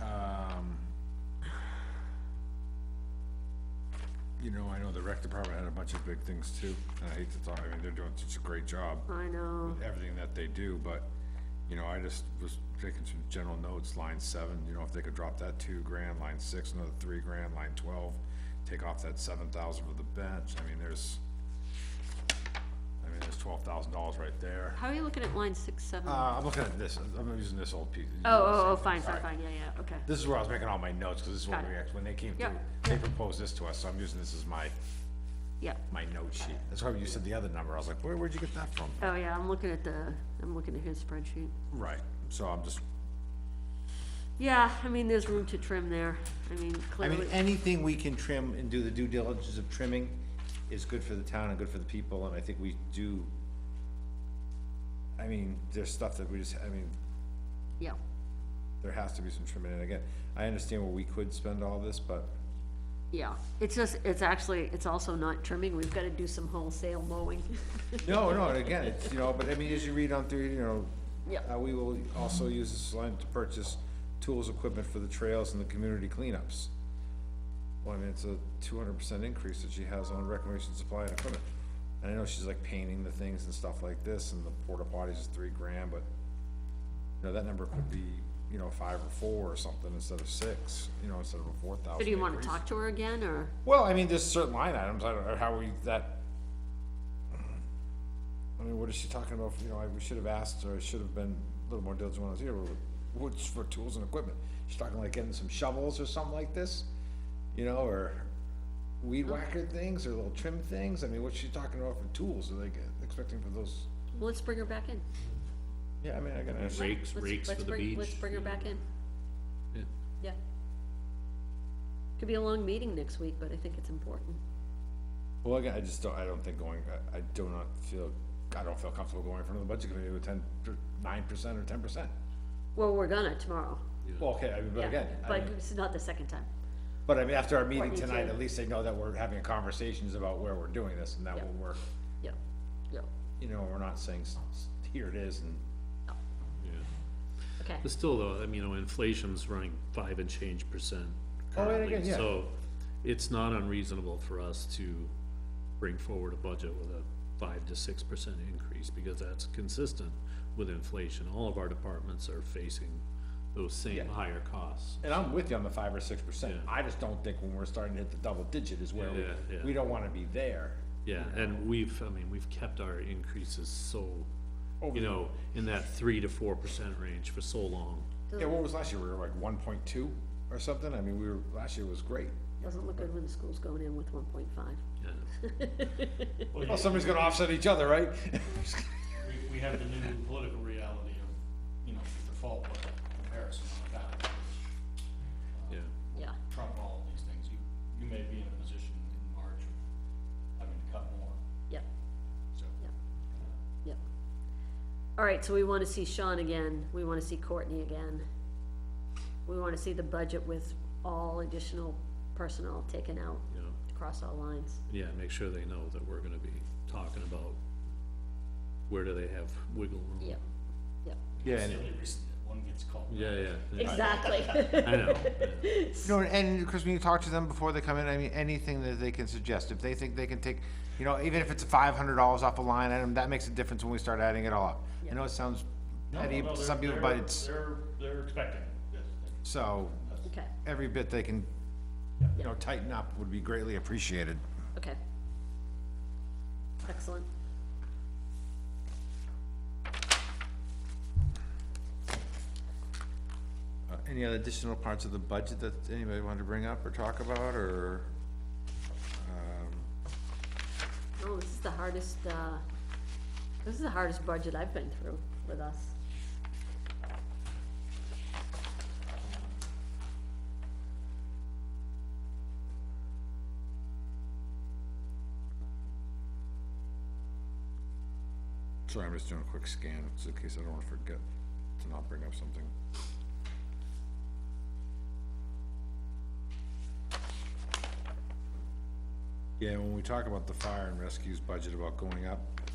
Um, know, I know the rec department had a bunch of big things too, and I hate to talk, I mean, they're doing such a great job I know. with everything that they do, but, you know, I just was taking some general notes, line seven, you know, if they could drop that two grand, line six, another three grand, line twelve, take off that seven thousand for the bench, I mean, there's, I mean, there's twelve thousand dollars right there. How are you looking at line six, seven? Oh, Uh, I'm looking at this, I'm using this old piece. oh, oh, fine, All fine, right. fine, yeah, yeah, okay. This is where I was making all my notes, because this is what Got we, it. act- when they came Yeah, through, they proposed this to us, so I'm using this as my, Yep. my note sheet. That's why when you said the other number, I was like, where, where'd you get that from? Oh, yeah, I'm looking at the, I'm looking at his spreadsheet. Right, so I'm just, Yeah, I mean, there's room to trim there. I mean, I mean, eh. clearly, anything we can trim and do the due diligence of trimming is good for the town and good for the people, and I think we do. I mean, there's stuff that we just, I mean, yeah. there has to be some trimming, and again, I understand where we could spend all this, but Yeah, it's just, it's actually, it's also not trimming, we've gotta do some wholesale mowing. No, no, and again, it's, you know, but I mean, as you read on through, you know. Yep. Uh, we will also use this line to purchase tools, equipment for the trails and the community cleanups. Well, I mean, it's a two hundred percent increase that she has on reclamation supply and equipment. And I know she's like painting the things and stuff like this, and the porta potties is three grand, but. You know, that number could be, you know, five or four or something instead of six, you know, instead of a four thousand. So do you wanna talk to her again, or? Well, I mean, there's certain line items, I don't know how we, that. I mean, what is she talking about, you know, I, we should have asked, or I should have been a little more diligent when I was here, what's for tools and equipment? She's talking like getting some shovels or something like this, you know, or weed whacker things, or little trim things, I mean, what's she talking about for tools, are they get- expecting for those? Well, Let's bring her back in. Yeah, I mean, I gotta. Let's- Rakes, rakes let's for the bring- Let's beach. bring her back in. Yeah. Could be a long meeting next week, but I think it's important. Well, again, I just don't, I don't think going, I, I do not feel, I don't feel comfortable going in front of the budget committee with ten, nine percent or ten percent. Well, we're gonna tomorrow. Well, okay, I mean, but Yeah, again. I But mean- it's not the second time. But I mean, after our meeting Courtney, tonight, too. at least they know that we're having conversations about where we're doing this and that Yep. will work. Yep, yep, You know, we're not saying, s- s- here it is and, Yeah. okay. But still though, I mean, you know, inflation's running five and change percent Oh, yeah, yeah, currently, yeah. so it's not unreasonable for us to bring forward a budget with a five to six percent increase, because that's consistent with inflation. All of our departments are facing those same Yeah. higher costs. and I'm with you on the five or six percent. Yeah. I just don't think when we're starting to hit the double digit is where we, Yeah, yeah. we don't wanna be there. Yeah, and we've, I mean, we've kept our increases so, Over you the- know, in that three to four percent range for so long. Yeah, what was last year? We were like one point two or something? I mean, we were, last year was great. Doesn't look good when the school's going in with one point five. Yeah. Well, somebody's gonna offset each other, right? we, we have the new political reality of, you know, default budget comparison on a ballot. uh, Yeah, Yeah, Trump all of these things, you, you may be in a position in March of having to cut more, yep, so. yep, yep. All right, so we wanna see Sean again, we wanna see Courtney again. We wanna see the budget with all additional personnel taken out you know, across all lines. yeah, make sure they know that we're gonna be talking about where do they have wiggle room. Yep, yep. Yeah, and, Silly reason that one gets called. Yeah, yeah, yeah, Exactly. I know, yeah. No, and Chris, when you talk to them before they come in, I mean, anything that they can suggest, if they think they can take, you know, even if it's five hundred dollars off a line item, that makes a difference when we start adding it all up. I know it sounds No, petty no, to they're- some people, they're- but it's, They're, they're expecting this. so, Okay, every bit they can, you know, tighten up would be greatly appreciated. okay. Excellent. Uh, Any other additional parts of the budget that anybody wanted to bring up or talk about, or? um, Oh, this is the hardest, uh, this is the hardest budget I've been through with us. Sorry, I'm just doing a quick scan, just in case I don't wanna forget to not bring up something. yeah, when we talk about the fire and rescues budget about going up,